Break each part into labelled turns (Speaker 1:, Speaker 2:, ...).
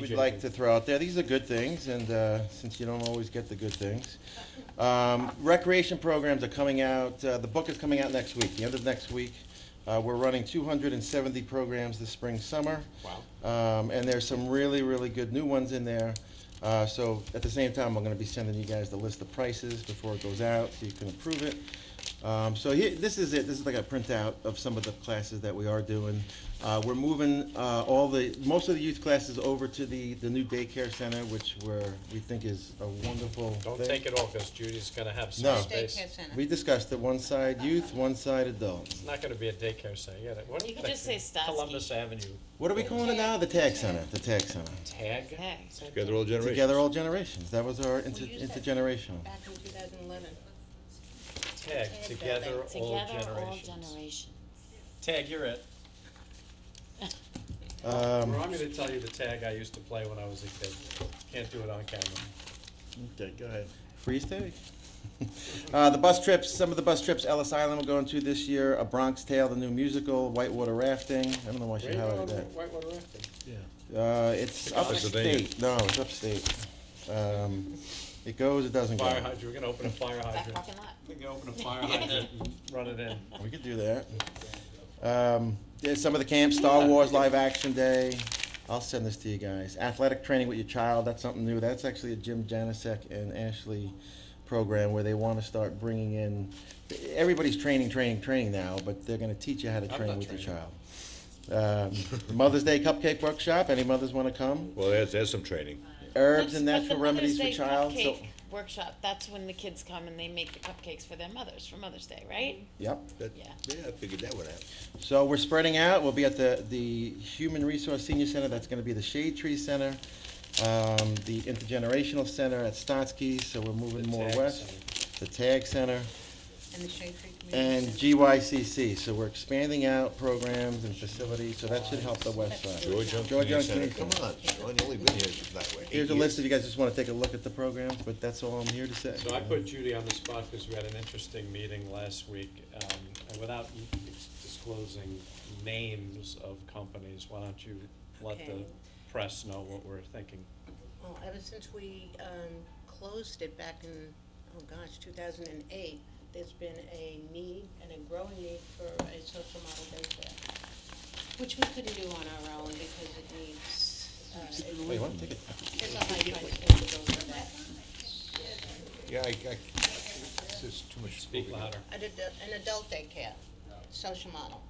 Speaker 1: we'd like to throw out there. These are good things, and uh, since you don't always get the good things. Um, Recreation programs are coming out, uh, the book is coming out next week, the end of next week. Uh, We're running 270 programs this spring, summer. Wow. And there's some really, really good new ones in there. Uh, So at the same time, I'm going to be sending you guys the list of prices before it goes out, so you can approve it. Um, so here, this is it. This is like a printout of some of the classes that we are doing. Uh, we're moving uh, all the most of the youth classes over to the the new daycare center, which we're, we think is a wonderful.
Speaker 2: Don't
Speaker 1: thing.
Speaker 2: take it off, because Judy's gonna have
Speaker 1: No.
Speaker 2: some space.
Speaker 3: Daycare
Speaker 2: It's
Speaker 3: center.
Speaker 1: We discussed it. One side youth, one side adults.
Speaker 2: not gonna be a daycare center, yeah, that, what?
Speaker 4: You could
Speaker 2: that-
Speaker 4: just say Statsky.
Speaker 2: Columbus Avenue
Speaker 1: What are we calling it now? The tag center. The tag center.
Speaker 2: tag,
Speaker 4: Hey, so
Speaker 5: Together all generations.
Speaker 1: Together all generations. That was our inter-
Speaker 3: Well, you said-
Speaker 1: intergenerational.
Speaker 3: Back in 2011.
Speaker 2: tag, together all
Speaker 4: Together, all
Speaker 2: generations.
Speaker 4: generations.
Speaker 2: Tag, you're it.
Speaker 1: Um,
Speaker 2: Well, I'm gonna tell you the tag I used to play when I was a kid, can't do it on camera.
Speaker 5: Okay, go ahead.
Speaker 1: Free steak. Uh, the bus trips, some of the bus trips Ellis Island will go into this year, A Bronx Tale, the new musical, Whitewater Rafting, I don't know why she highlighted
Speaker 2: Railroad,
Speaker 1: that.
Speaker 2: Whitewater Rafting.
Speaker 5: Yeah.
Speaker 1: Uh, it's
Speaker 5: Pennsylvania.
Speaker 1: upstate, no, it's upstate. Um, it goes, it doesn't
Speaker 2: Fire
Speaker 1: go.
Speaker 2: hydrant, we're gonna open a fire
Speaker 4: Back
Speaker 2: hydrant.
Speaker 4: parking lot.
Speaker 2: We're gonna open a fire hydrant and run it in.
Speaker 1: We could do that. Um, there's some of the camps, Star Wars Live Action Day, I'll send this to you guys. Athletic training with your child, that's something new, that's actually a Jim Janasek and Ashley program where they wanna start bringing in, everybody's training, training, training now, but they're gonna teach you how to
Speaker 2: I'm
Speaker 1: train
Speaker 2: not
Speaker 1: with your
Speaker 2: training.
Speaker 1: child. Um, Mother's Day Cupcake Workshop, any mothers wanna come?
Speaker 5: Well, there's, there's some training.
Speaker 1: Herbs and
Speaker 4: That's- but
Speaker 1: natural
Speaker 4: the
Speaker 1: remedies
Speaker 4: Mother's
Speaker 1: for
Speaker 4: Day
Speaker 1: child, so,
Speaker 4: cupcake Workshop, that's when the kids come and they make the cupcakes for their mothers, for Mother's Day, right?
Speaker 1: yep.
Speaker 5: That-
Speaker 4: Yeah.
Speaker 5: Yeah, I figured that one out.
Speaker 1: So we're spreading out. We'll be at the, the Human Resource Senior Center. That's going to be the Shade Tree Center, um, the Intergenerational Center at Stotsky. So we're moving
Speaker 2: The
Speaker 1: more
Speaker 2: tag
Speaker 1: west. The Tag Center
Speaker 3: And the Shade Tree Community
Speaker 1: and
Speaker 3: Center.
Speaker 1: GYCC. So we're expanding out programs and facilities. So that should help the west side.
Speaker 5: George Young
Speaker 1: George
Speaker 5: Community
Speaker 1: Young
Speaker 5: Center.
Speaker 1: Community
Speaker 5: Come on, Sean, you only been here, that way.
Speaker 1: Here's a list if you guys just want to take a look at the programs. But that's all I'm here to say.
Speaker 2: So I put Judy on the spot because we had an interesting meeting last week, um, and without you disclosing names of companies, why don't you let the
Speaker 3: Okay.
Speaker 2: press know what we're thinking?
Speaker 3: Well, ever since we um, closed it back in, oh gosh, 2008, there's been a need and a growing need for a social model daycare, which we couldn't do on our own because it needs, uh, it-
Speaker 1: Wait, what? Take it.
Speaker 3: there's a high price tag that goes with that.
Speaker 5: Yeah, I, I, it's just too much.
Speaker 2: Speak louder.
Speaker 3: an adult, an adult daycare, social model.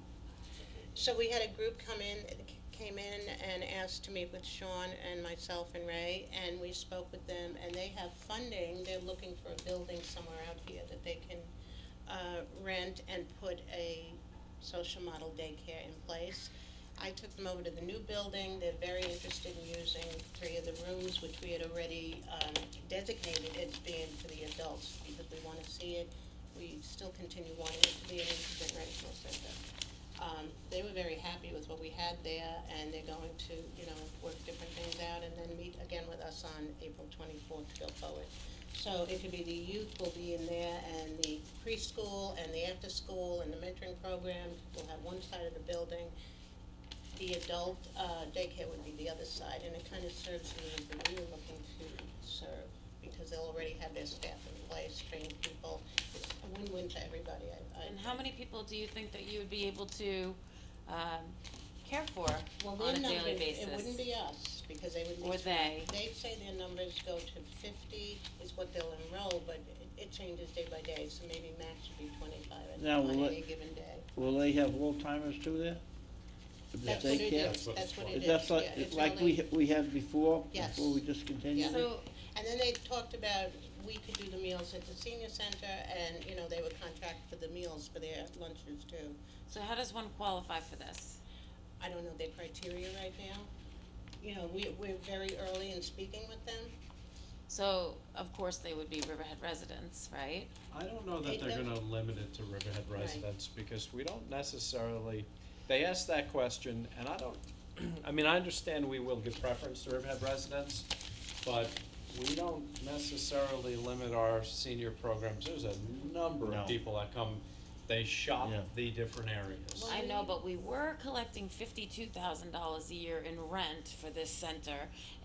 Speaker 3: So we had a group come in, came in and asked to meet with Sean and myself and Ray, and we spoke with them, and they have funding, they're looking for a building somewhere out here that they can, uh, rent and put a social model daycare in place. I took them over to the new building, they're very interested in using three of the rooms, which we had already, um, designated as being for the adults, because we wanna see it. We still continue wanting it to be an intergenerational center. Um, they were very happy with what we had there, and they're going to, you know, work different things out, and then meet again with us on April twenty-fourth to go forward. So it could be the youth will be in there, and the preschool, and the after-school, and the mentoring program, we'll have one side of the building. The adult, uh, daycare would be the other side, and it kind of serves the needs that we were looking to serve, because they'll already have their staff in place, trained people, it's a win-win to everybody, I, I.
Speaker 4: And how many people do you think that you would be able to, um, care for
Speaker 3: Well,
Speaker 4: on
Speaker 3: their
Speaker 4: a daily
Speaker 3: numbers,
Speaker 4: basis?
Speaker 3: it wouldn't be us, because they would be.
Speaker 4: Or they.
Speaker 3: They say their numbers go to fifty is what they'll enroll, but it- it changes day by day, so maybe max would be twenty-five
Speaker 6: Now,
Speaker 3: on
Speaker 6: will
Speaker 3: any
Speaker 6: it-
Speaker 3: given day.
Speaker 6: Will they have full-timers too there? If
Speaker 3: That's
Speaker 6: they
Speaker 3: what it
Speaker 6: care?
Speaker 3: is,
Speaker 2: what
Speaker 3: that's
Speaker 2: it's
Speaker 3: what
Speaker 2: for.
Speaker 3: it is,
Speaker 6: That's
Speaker 3: yeah,
Speaker 6: like,
Speaker 3: it's
Speaker 6: like
Speaker 3: only-
Speaker 6: we, ha- we had before,
Speaker 3: Yes.
Speaker 6: before we discontinued it?
Speaker 4: So,
Speaker 3: And then they talked about, we could do the meals at the senior center, and, you know, they would contract for the meals for their lunches too.
Speaker 4: so how does one qualify for this?
Speaker 3: I don't know their criteria right now. You know, we, we're very early in speaking with them.
Speaker 4: So, of course, they would be Riverhead residents, right?
Speaker 2: I don't know that
Speaker 3: They
Speaker 2: they're
Speaker 3: don't-
Speaker 2: gonna limit it to Riverhead
Speaker 3: Right.
Speaker 2: residents, because we don't necessarily, they asked that question, and I don't, I mean, I understand we will give preference to Riverhead residents, but we don't necessarily limit our senior programs, there's a number
Speaker 6: No.
Speaker 2: of people that come, they shop
Speaker 6: Yeah.
Speaker 2: the different areas.
Speaker 4: I know, but we were collecting fifty-two thousand dollars a year in rent for this center,